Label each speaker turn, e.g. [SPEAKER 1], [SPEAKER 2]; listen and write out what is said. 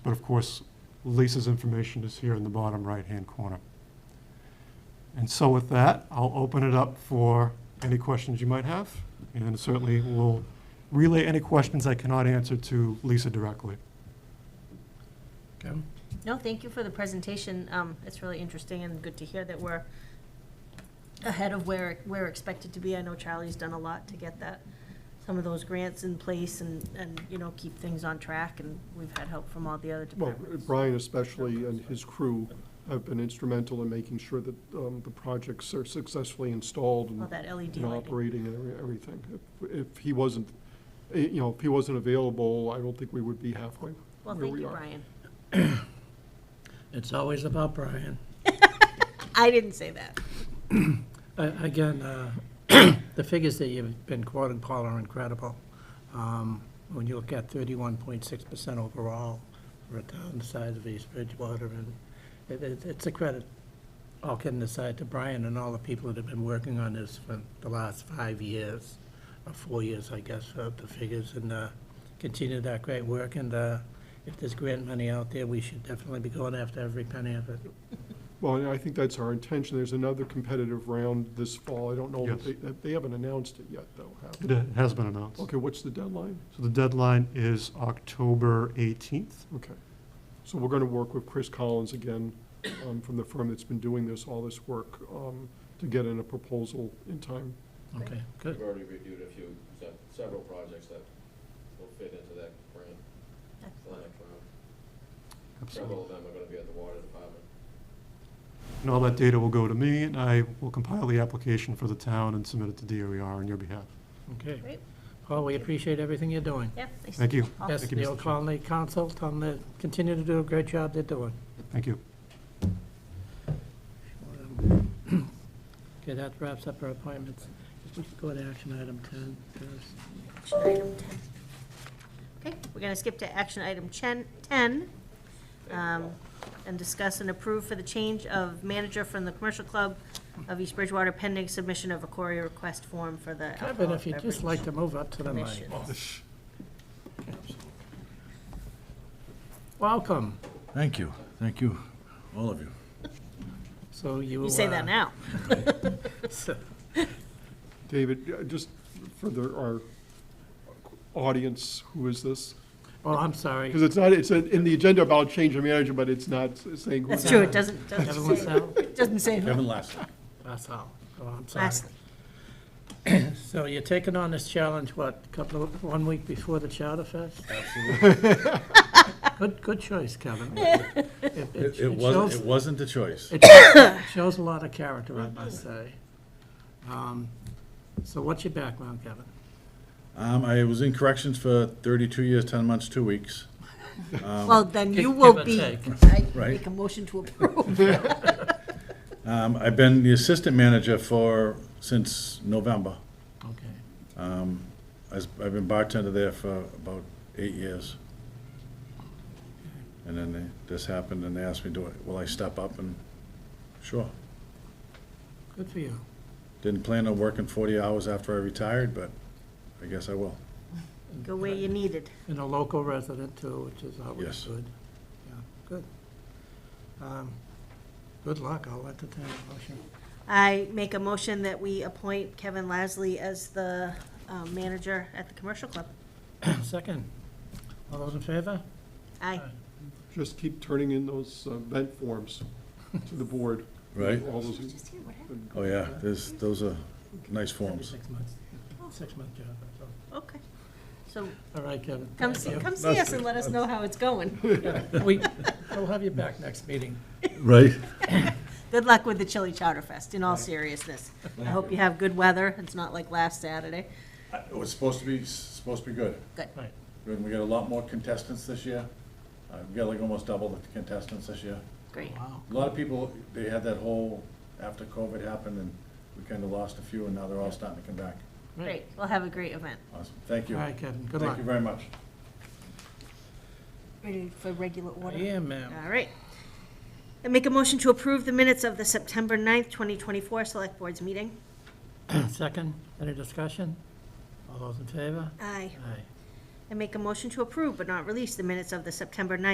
[SPEAKER 1] But of course, Lisa's information is here in the bottom right-hand corner. And so with that, I'll open it up for any questions you might have, and certainly will relay any questions I cannot answer to Lisa directly.
[SPEAKER 2] Kevin?
[SPEAKER 3] No, thank you for the presentation. Um, It's really interesting and good to hear that we're ahead of where we're expected to be. I know Charlie's done a lot to get that, some of those grants in place and, and, you know, keep things on track, and we've had help from all the other
[SPEAKER 4] Well, uh,
[SPEAKER 3] departments.
[SPEAKER 4] Brian especially and his crew have been instrumental in making sure that um, the projects are successfully installed
[SPEAKER 3] All
[SPEAKER 4] and
[SPEAKER 3] that LED lighting.
[SPEAKER 4] and operating and every- everything. If- If he wasn't, eh, you know, if he wasn't available, I don't think we would be halfway.
[SPEAKER 3] Well,
[SPEAKER 4] where
[SPEAKER 3] thank
[SPEAKER 4] we
[SPEAKER 3] you,
[SPEAKER 4] are.
[SPEAKER 3] Brian.
[SPEAKER 2] It's always about Brian.
[SPEAKER 3] I didn't say that.
[SPEAKER 2] A- Again, uh, the figures that you've been quoting, Paul, are incredible. Um, When you look at thirty-one point six percent overall for a town the size of East Bridgewater, and it- it- it's a credit, all kidding aside, to Brian and all the people that have been working on this for the last five years, or four years, I guess, for the figures, and uh, continue that great work. And uh, if there's grant money out there, we should definitely be going after every penny of it.
[SPEAKER 4] Well, and I think that's our intention. There's another competitive round this fall. I don't know,
[SPEAKER 1] Yes.
[SPEAKER 4] that they, that they haven't announced it yet, though, have they?
[SPEAKER 1] It has been announced.
[SPEAKER 4] Okay, what's the deadline?
[SPEAKER 1] So the deadline is October 18th.
[SPEAKER 4] Okay. So we're going to work with Chris Collins again um, from the firm that's been doing this, all this work, um, to get in a proposal in time.
[SPEAKER 2] Okay, good.
[SPEAKER 5] We've already reviewed a few, se- several projects that will fit into that grant, for the next round. Several of them are gonna be at the water department.
[SPEAKER 1] And all that data will go to me, and I will compile the application for the town and submit it to DOER on your behalf.
[SPEAKER 2] Okay.
[SPEAKER 3] Great.
[SPEAKER 2] Paul, we appreciate everything you're doing.
[SPEAKER 3] Yeah. nice.
[SPEAKER 1] Thank you.
[SPEAKER 3] Awesome.
[SPEAKER 2] Yes,
[SPEAKER 1] Thank you,
[SPEAKER 2] the
[SPEAKER 1] Mr.
[SPEAKER 2] Old
[SPEAKER 1] Chair.
[SPEAKER 2] Colony Council, tell them to continue to do a great job they're doing.
[SPEAKER 1] Thank you.
[SPEAKER 2] Okay, that wraps up our appointments. If we could go to action item 10 first.
[SPEAKER 3] Action item 10. Okay, we're going to skip to action item 10, 10, um, and discuss and approve for the change of manager from the Commercial Club of East Bridgewater pending submission of a query request form for the
[SPEAKER 2] Kevin,
[SPEAKER 3] alcohol
[SPEAKER 2] if you'd just
[SPEAKER 3] beverage
[SPEAKER 2] like to move up to the mic.
[SPEAKER 3] commission.
[SPEAKER 2] Welcome.
[SPEAKER 6] Thank you, thank you, all of you.
[SPEAKER 2] So you.
[SPEAKER 3] You say
[SPEAKER 2] uh,
[SPEAKER 3] that now.
[SPEAKER 2] so-
[SPEAKER 4] David, uh, just for the, our audience, who is this?
[SPEAKER 2] Oh, I'm sorry.
[SPEAKER 4] Because it's not, it's in the agenda about change of manager, but it's not saying. who
[SPEAKER 3] That's
[SPEAKER 4] it
[SPEAKER 3] true,
[SPEAKER 4] is.
[SPEAKER 3] it doesn't,
[SPEAKER 2] Kevin
[SPEAKER 3] doesn't say,
[SPEAKER 2] Lassell?
[SPEAKER 3] doesn't say who.
[SPEAKER 6] Kevin Lassler.
[SPEAKER 2] That's all. Oh, I'm sorry.
[SPEAKER 3] Lastly,
[SPEAKER 2] So you're taking on this challenge, what, couple of, one week before the Chowder Fest? Good, good choice, Kevin. It- It
[SPEAKER 6] It
[SPEAKER 2] it
[SPEAKER 6] it wasn't,
[SPEAKER 2] shows-
[SPEAKER 6] it wasn't a choice.
[SPEAKER 2] It shows a lot of character, I must say. Um, So what's your background, Kevin?
[SPEAKER 6] Um, I was in corrections for thirty-two years, ten months, two weeks.
[SPEAKER 3] Well, then you
[SPEAKER 2] Um, Give- give
[SPEAKER 3] will
[SPEAKER 2] or
[SPEAKER 3] be,
[SPEAKER 2] take.
[SPEAKER 3] I
[SPEAKER 6] Right.
[SPEAKER 3] make a motion to approve.
[SPEAKER 6] Um, I've been the assistant manager for, since November.
[SPEAKER 2] Okay.
[SPEAKER 6] I was- I've been bartender there for about eight years. And then they- this happened, and they asked me, do I, will I step up, and sure.
[SPEAKER 2] Good for you.
[SPEAKER 6] Didn't plan on working forty hours after I retired, but I guess I will.
[SPEAKER 3] Go where you needed.
[SPEAKER 2] And a local resident too, which is always
[SPEAKER 6] Yes.
[SPEAKER 2] good. Yeah, good. Um, Good luck, I'll entertain a motion.
[SPEAKER 3] I make a motion that we appoint Kevin Lasley as the um, manager at the commercial club.
[SPEAKER 2] Second. All those in favor?
[SPEAKER 3] Aye.
[SPEAKER 4] Just keep turning in those uh, vent forms to the board.
[SPEAKER 6] Right?
[SPEAKER 4] All those-
[SPEAKER 6] Oh, yeah, there's, those are nice forms.
[SPEAKER 2] Six months, six month job, that's all.
[SPEAKER 3] Okay. So
[SPEAKER 2] All right, Kevin.
[SPEAKER 3] come
[SPEAKER 2] thank
[SPEAKER 3] see,
[SPEAKER 2] you.
[SPEAKER 3] come see us and let us know how it's going.
[SPEAKER 2] We, we'll have you back next meeting.
[SPEAKER 6] Right?
[SPEAKER 3] Good luck with the Chili Chowder Fest, in all seriousness. I hope you have good weather. It's not like last Saturday.
[SPEAKER 6] It was supposed to be, supposed to be good.
[SPEAKER 3] Good.
[SPEAKER 2] Right.
[SPEAKER 6] And we got a lot more contestants this year. Uh, We got like almost double the contestants this year.
[SPEAKER 3] Great.
[SPEAKER 2] Wow.
[SPEAKER 6] A lot of people, they had that whole, after COVID happened, and we kind of lost a few, and now they're all starting to come back.
[SPEAKER 3] Great. We'll have a great event.
[SPEAKER 6] Awesome, thank
[SPEAKER 2] All
[SPEAKER 6] you.
[SPEAKER 2] right, Kevin, good
[SPEAKER 6] Thank
[SPEAKER 2] luck.
[SPEAKER 6] you very much.
[SPEAKER 3] Ready for regular order?
[SPEAKER 2] Yeah, ma'am.
[SPEAKER 3] All right. I make a motion to approve the minutes of the September 9th, 2024 Select Boards meeting.
[SPEAKER 2] Second, any discussion? All those in favor?
[SPEAKER 3] Aye.
[SPEAKER 2] Aye.
[SPEAKER 3] I make a motion to approve but not release the minutes of the September 9th,